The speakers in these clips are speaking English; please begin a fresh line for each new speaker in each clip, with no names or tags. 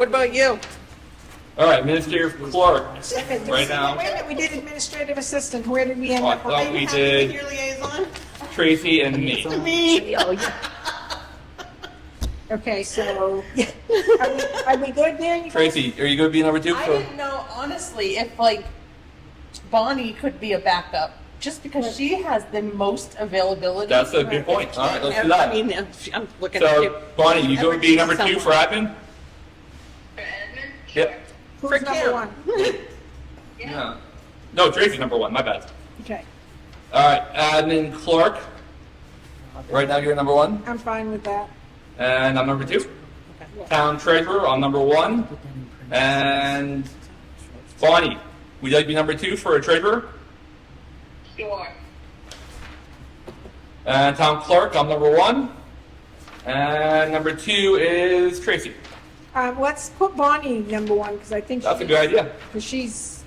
What about you?
All right, Minister Clark,
Second,
Right now.
Wait a minute, we did administrative assistant. Where did we end
Oh, I
up?
thought
Why
we
you have
did-
to be Your liaison?
Tracy, and me.
Me.
Oh, yeah.
Okay, so, are we, are we good there? you guys?
Tracy, are you going to be number two?
I didn't know honestly if like Bonnie could be a backup just because she has the most availability.
That's a good point. All right, let's do
I
that.
mean, I'm- I'm looking at you.
So, Bonnie, you going to be number two for admin?
For Edmund?
Yep.
Who's number one?
Yeah. No, Tracy number one. My bad.
Okay,
All right, admin Clark. Right now you're number one,
I'm fine with that.
and I'm number two. Town treasurer, I'm number one, and Bonnie, would you like to be number two for a treasurer?
Sure.
And town clerk, I'm number one, and number two is Tracy.
Um, let's put Bonnie number one, because I think.
That's a
she-
good idea.
Because she's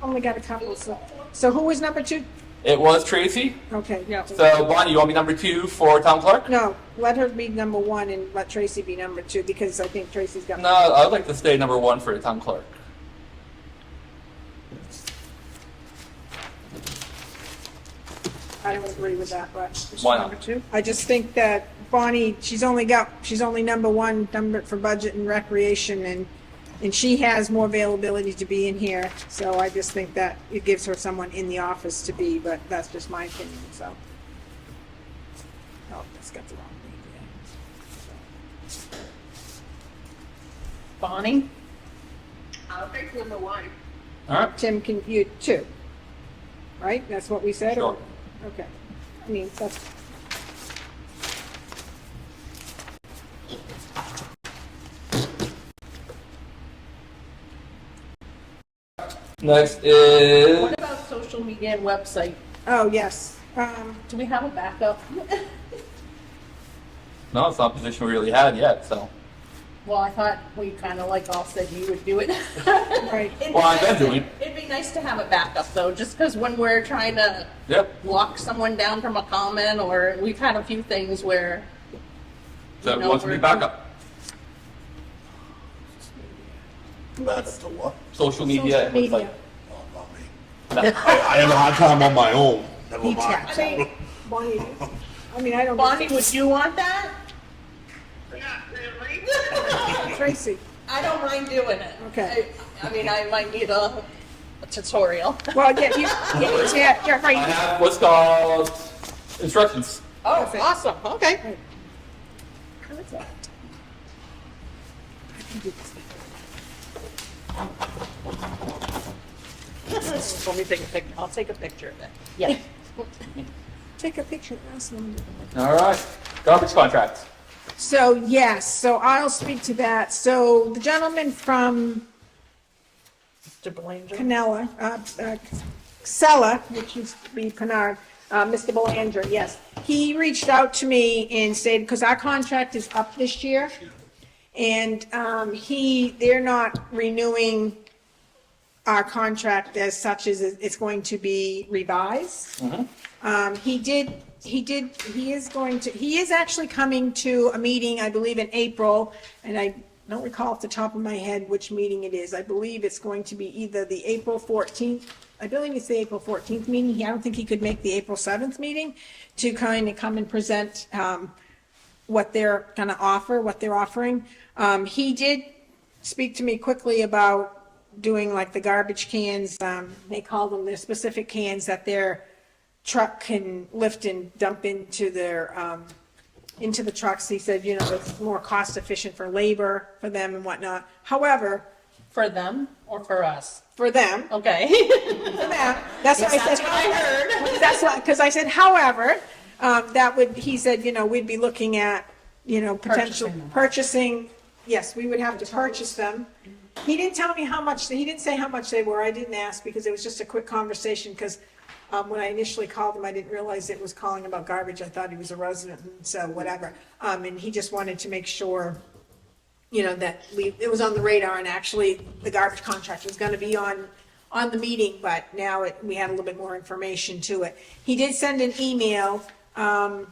only got a couple, so, so who was number two?
It was Tracy.
Okay, no.
So Bonnie, you want to be number two for town clerk?
No, let her be number one and let Tracy be number two, because I think Tracy's got.
No, I'd like to stay number one for the town clerk.
I don't agree with that, but.
Why not?
Number two. I just think that Bonnie, she's only got, she's only number one, number for budget and recreation, and, and she has more availability to be in here, so I just think that it gives her someone in the office to be, but that's just my opinion, so. Oh, that's got the wrong name,
Bonnie.
I'll take number one.
All right.
yeah. Tim, can you, two? Right, that's what we said? or-
Sure.
Okay, I mean, that's,
Next is
What about social media and website?
oh, yes, um,
Do we have a backup?
no, it's not a position we really had yet. So
well, I thought we kind of like all said you would do it.
Right.
It'd be
Well, I've been
nice to-
doing it.
It'd be nice to have a backup though, just because when we're trying to
yep.
lock someone down from a comment, or we've had a few things where
So
No,
it wants to be
we're-
backup.
That's the what?
Social media.
Social media.
No, not me.
No.
I, I have a hard time on my own. Never
He
mind.
taps out. Bonnie, I mean, I don't.
Bonnie, would you want that?
Not really.
Tracy,
I don't mind doing it.
Okay.
I, I mean, I might need a, a tutorial.
well, yeah, you, yeah, yeah, yeah,
I
right.
have what's called instructions.
Oh,
Perfect.
awesome. Okay. Let me take a pic. I'll take a picture of it. Yeah.
Take a picture of us. Linda.
All right. Garbage contracts.
So, yes, so I'll speak to that. So the gentleman from
To Belanger.
Canella, uh, uh, Sella, which used to be Pinard, uh, Mr. Belanger, yes. He reached out to me and said, because our contract is up this year, and, um, he, they're not renewing our contract as such as it- it's going to be revised. Um, he did, he did, he is going to, he is actually coming to a meeting, I believe in April, and I don't recall off the top of my head which meeting it is. I believe it's going to be either the April fourteenth, I believe it's the April fourteenth meeting. He- I don't think he could make the April seventh meeting to kind of come and present, um, what they're gonna offer, what they're offering. Um, he did speak to me quickly about doing like the garbage cans, um, they call them, their specific cans that their truck can lift and dump into their, um, into the trucks. He said, you know, it's more cost efficient for labor for them and whatnot. However,
For them or for us?
for them,
Okay.
for them, that's what I said.
That's what I heard.
That's why, because I said, however, um, that would, he said, you know, we'd be looking at, you know, potential
Purchasing them.
purchasing, yes, we would have to purchase them. He didn't tell me how much, he didn't say how much they were, I didn't ask, because it was just a quick conversation, because um, when I initially called him, I didn't realize it was calling about garbage, I thought he was a resident, and so whatever. Um, and he just wanted to make sure, you know, that we, it was on the radar, and actually, the garbage contract was gonna be on, on the meeting, but now it, we had a little bit more information to it. He did send an email, um,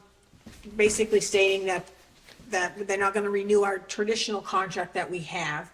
basically stating that, that they're not gonna renew our traditional contract that we have,